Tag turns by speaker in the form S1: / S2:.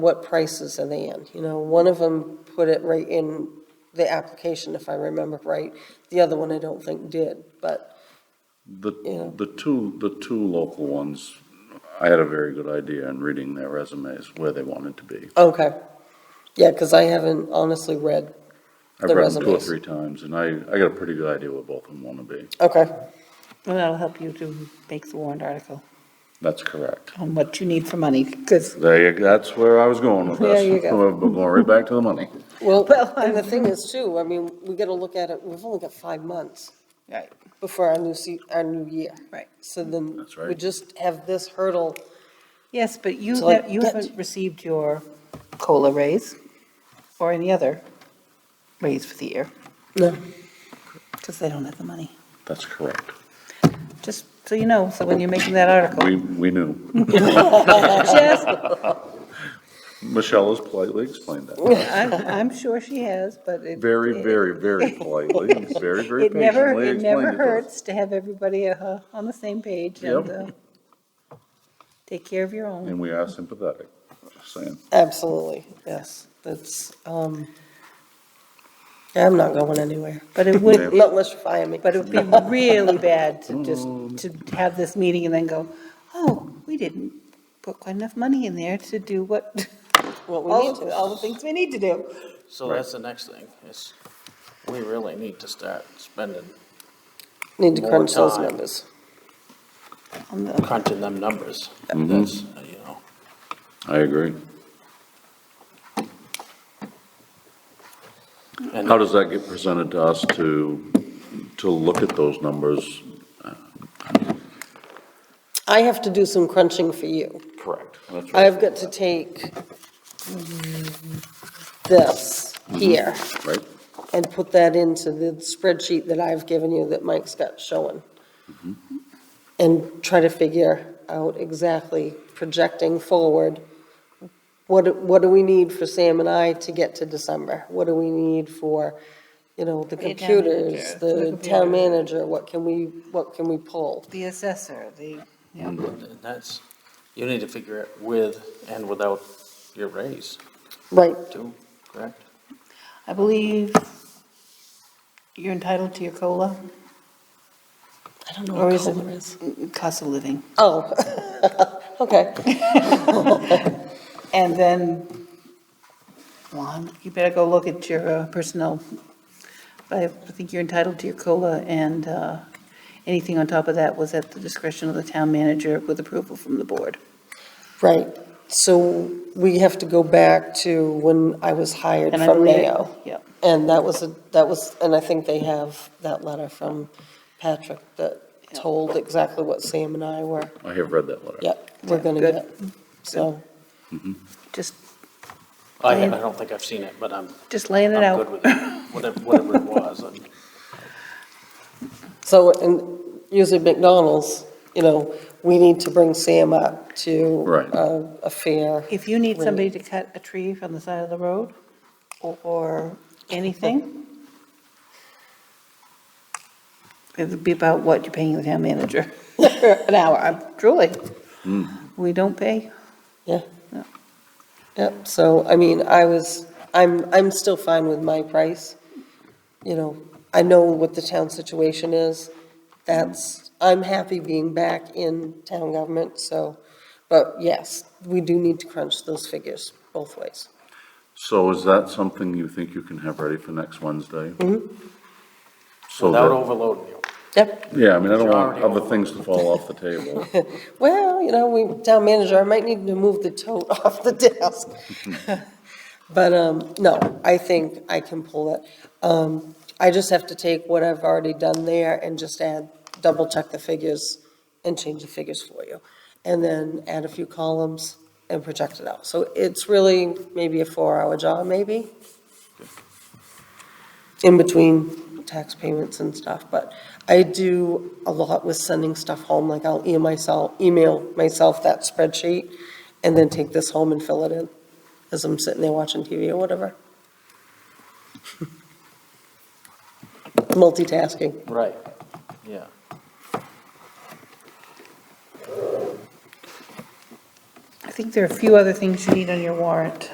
S1: what prices are they in? You know, one of them put it right in the application, if I remember right. The other one I don't think did, but, Yeah.
S2: The, the two, the two local ones, I had a very good idea in reading their resumes where they wanted to be.
S1: okay. Yeah, because I haven't honestly read,
S2: I've
S1: The
S2: read them two or
S1: resumes.
S2: three times, and I, I got a pretty good idea where both of them want to be.
S1: okay,
S3: Well, that'll help you to make the warrant article
S2: That's correct.
S3: on what you need for money, because,
S2: There you, that's where I was going with this.
S3: There you go.
S2: We're going right back to the money.
S1: well,
S3: Well,
S1: and the thing is too, I mean, we gotta look at it, we've only got five months
S3: right,
S1: before our new se, our new year.
S3: right.
S1: So then,
S2: That's
S1: we
S2: right.
S1: just have this hurdle,
S3: Yes, but you,
S1: So, like,
S3: ha- you
S1: get-
S3: haven't received your COLA raise or any other raise for the year,
S1: no,
S3: because they don't have the money.
S2: That's correct.
S3: Just so you know, so when you're making that article,
S2: We, we knew.
S3: just,
S2: Michelle has politely explained that.
S3: I'm, I'm sure she has, but it.
S2: Very,
S3: it-
S2: very, very politely, very, very
S3: It never,
S2: patiently
S3: it
S2: explained
S3: never
S2: it to us.
S3: hurts to have everybody uh, on the same page and
S2: Yep.
S3: uh, take care of your own.
S2: And we are sympathetic, just saying.
S1: absolutely, yes. That's, um, yeah, I'm not going anywhere,
S3: But it would,
S1: not unless you fire me.
S3: But it would be really bad to just,
S1: Oh,
S3: to have this meeting and then go, oh, we didn't put quite enough money in there to do what,
S1: What we need
S3: all,
S1: to.
S3: all the things we need to do.
S4: So that's the next thing, is we really need to start spending,
S1: Need to
S4: More
S1: crunch those
S4: time.
S1: numbers.
S3: On the-
S4: crunching them numbers. That's, uh, you know,
S2: I agree.
S4: and
S2: How does that get presented to us to, to look at those numbers?
S1: I have to do some crunching for you.
S2: Correct. That's right.
S1: I've got to take this here
S2: Right?
S1: and put that into the spreadsheet that I've given you that Mike's got showing. And try to figure out exactly projecting forward, what, do- what do we need for Sam and I to get to December? What do we need for, you know, the
S3: The town
S1: computers,
S3: manager.
S1: the
S3: The
S1: town
S3: computer.
S1: manager, what can we, what can we pull?
S3: The assessor, the, yeah,
S1: Mm.
S4: and that's, you need to figure it with and without your raise
S1: Right,
S4: too, correct?
S3: I believe you're entitled to your COLA
S1: I don't know
S3: or
S1: what
S3: is
S1: color is.
S3: it cost of living?
S1: Oh, okay.
S3: And then, Juan, you better go look at your uh, personnel. I think you're entitled to your COLA, and uh, anything on top of that was at the discretion of the town manager with approval from the board.
S1: Right. So we have to go back to when I was hired
S3: And I
S1: from
S3: believe-
S1: Mayo.
S3: Yep.
S1: And that was, a that was, and I think they have that letter from Patrick that told exactly what Sam and I were,
S2: I have read that letter.
S1: yep, we're going to
S3: Good.
S1: get. So,
S3: Just,
S4: I, I don't think I've seen it, but I'm,
S3: just laying it
S4: I'm good
S3: out.
S4: with it, whatever, whatever it was. and-
S1: so, and usually McDonald's, you know, we need to bring Sam up to
S2: Right.
S1: a- a fair,
S3: If you need somebody to cut a tree from the side of the road or- or anything, it would be about what you're paying the town manager an hour, I'm- truly.
S4: Hmm.
S3: We don't pay
S1: yeah.
S3: Yeah.
S1: Yep, so, I mean, I was, I'm, I'm still fine with my price. You know, I know what the town situation is. That's, I'm happy being back in town government, so, but yes, we do need to crunch those figures both ways.
S2: So is that something you think you can have ready for next Wednesday? So
S4: Without
S2: that,
S4: overloading you.
S1: Yep,
S2: yeah, I mean, I don't want
S4: You're already
S2: other things to fall off the table.
S1: well, you know, we, town manager, I might need to move the tote off the desk. But, um, no, I think I can pull it. Um, I just have to take what I've already done there and just add, double check the figures and change the figures for you. And then add a few columns and project it out. So it's really maybe a four-hour job, maybe? In between tax payments and stuff, but I do a lot with sending stuff home, like I'll email myself, email myself that spreadsheet and then take this home and fill it in as I'm sitting there watching TV or whatever. Multitasking.
S4: Right, yeah.
S3: I think there are a few other things you need on your warrant.